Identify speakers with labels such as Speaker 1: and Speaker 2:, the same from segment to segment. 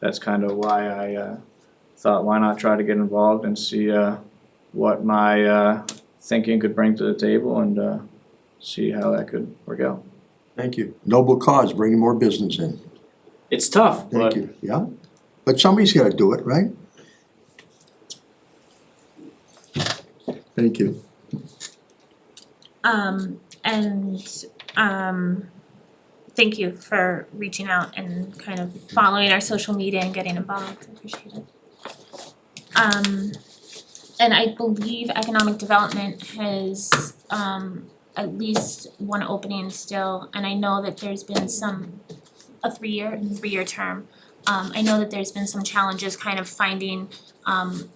Speaker 1: that's kind of why I uh, thought why not try to get involved and see uh, what my uh, thinking could bring to the table and uh, see how that could work out.
Speaker 2: Thank you. Noble cause, bringing more business in.
Speaker 1: It's tough,
Speaker 2: Thank
Speaker 1: but
Speaker 2: you, yeah. But somebody's gotta do it, right? Thank you.
Speaker 3: Um, and, um, thank you for reaching out and kind of following our social media and getting involved, appreciate it. Um, and I believe economic development has, um, at least one opening still, and I know that there's been some, a three-year, three-year term. Um, I know that there's been some challenges kind of finding, um,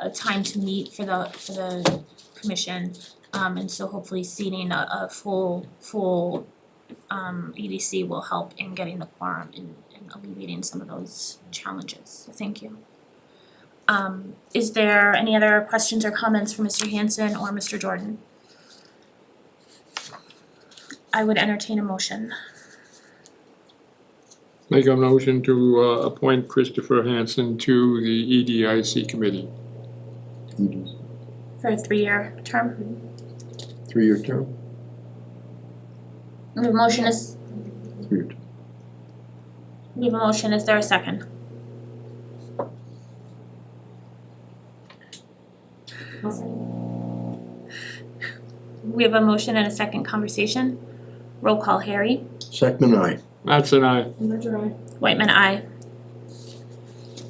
Speaker 3: a time to meet for the, for the commission. Um and so hopefully seating a a full full um EDC will help in getting the quorum and and alleviating some of those challenges, so thank you. Um is there any other questions or comments for Mr. Hanson or Mr. Jordan? I would entertain a motion.
Speaker 4: Make a motion to uh, appoint Christopher Hansen to the E EDIC committee.
Speaker 3: For a three-year term,
Speaker 2: Three-year term?
Speaker 3: we have a motion is,
Speaker 2: Three-year term.
Speaker 3: we have a motion, is there a second? We have a motion and a second conversation. Roll call, Harry.
Speaker 2: Second I.
Speaker 4: Matt's and I,
Speaker 3: Whitman, I.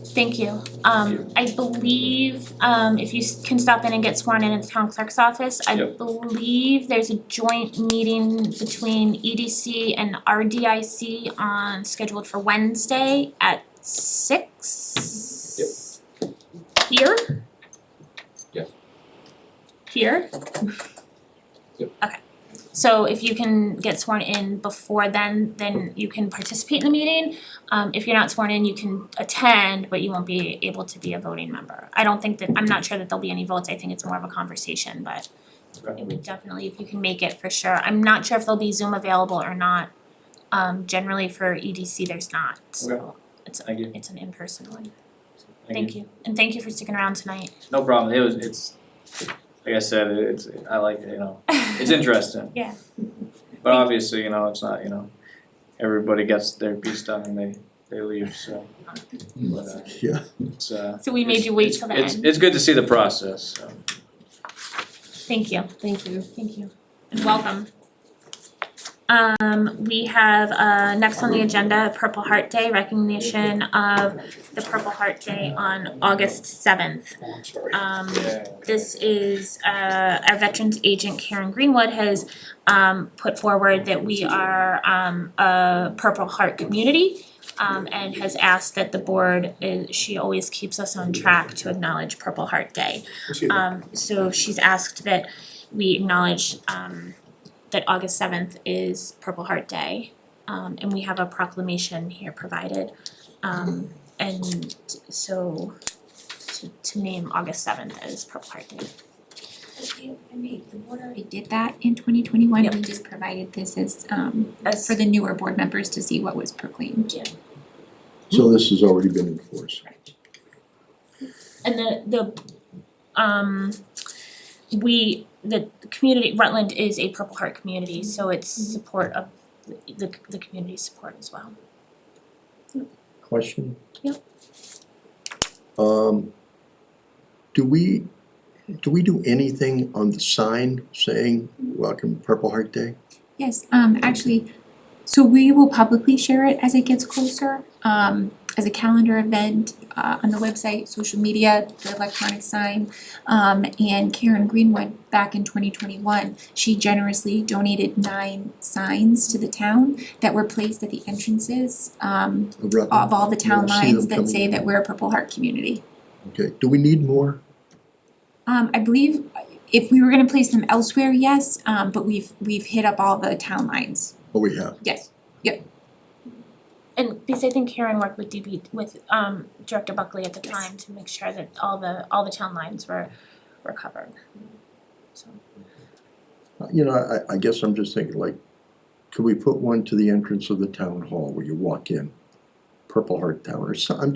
Speaker 3: Thank you. Um, I believe, um, if you s- can stop in and get sworn in at the town clerk's office, I
Speaker 1: Yep.
Speaker 3: believe there's a joint meeting between EDC and RDIC on, scheduled for Wednesday at six? Yep. Here?
Speaker 5: Yes.
Speaker 3: Here?
Speaker 5: Yep.
Speaker 3: Okay. So if you can get sworn in before then, then you can participate in the meeting. Um if you're not sworn in, you can attend, but you won't be able to be a voting member. I don't think that, I'm not sure that there'll be any votes, I think it's more of a conversation, but it would definitely, if you can make it for sure. I'm not sure if there'll be Zoom available or not. Um generally for EDC, there's not, so it's
Speaker 1: thank you.
Speaker 3: it's an in-person one. Thank you, and thank you for sticking around tonight.
Speaker 1: No problem. It was it's like I said, it's I like it, you know. It's interesting.
Speaker 3: Yeah.
Speaker 1: But obviously, you know, it's not, you know, everybody gets their piece done and they they leave, so but uh,
Speaker 2: Yeah.
Speaker 1: it's uh
Speaker 3: So we made you wait
Speaker 1: it's-
Speaker 3: till the
Speaker 1: it's-
Speaker 3: end.
Speaker 1: It's good to see the process, so.
Speaker 3: Thank you.
Speaker 6: Thank you.
Speaker 3: Thank you. And welcome. Um, we have, uh, next on the agenda, Purple Heart Day, recognition of the Purple Heart Day on August seventh. Um, this is, uh, our Veterans Agent Karen Greenwood has, um, put forward that we are, um, a Purple Heart community. Um, and has asked that the board, uh, she always keeps us on track to acknowledge Purple Heart Day. Um, so she's asked that we acknowledge um that August seventh is Purple Heart Day. Um and we have a proclamation here provided. Um and so to to name August seventh as Purple Heart Day.
Speaker 7: I mean, the board already did that in twenty twenty-one,
Speaker 3: Yep.
Speaker 7: we just provided this as, um,
Speaker 3: As
Speaker 7: for the newer board members to see what was proclaimed.
Speaker 2: So this has already been enforced.
Speaker 3: and the the um we the the community Rutland is a Purple Heart community, so it's support of the the community support as well.
Speaker 2: Question?
Speaker 3: Yep.
Speaker 2: Um, do we, do we do anything on the sign saying welcome Purple Heart Day?
Speaker 7: Yes, um, actually, so we will publicly share it as it gets closer, um, as a calendar event, uh, on the website, social media, the electronic sign. Um, and Karen Greenwood, back in twenty twenty-one, she generously donated nine signs to the town that were placed at the entrances, um,
Speaker 3: Uh,
Speaker 7: of all the town
Speaker 2: Yeah, I see them
Speaker 7: lines that say
Speaker 2: coming.
Speaker 7: that we're a Purple Heart community.
Speaker 2: Okay, do we need more?
Speaker 7: Um, I believe if we were gonna place them elsewhere, yes, um, but we've, we've hit up all the town lines,
Speaker 2: Oh, we have.
Speaker 7: yes.
Speaker 3: And because I think Karen worked with DB, with um Director Buckley at the
Speaker 7: Yes.
Speaker 3: time to make sure that all the, all the town lines were, were covered. So,
Speaker 2: You know, I, I guess I'm just thinking like, could we put one to the entrance of the town hall where you walk in? Purple Heart Town or some, I'm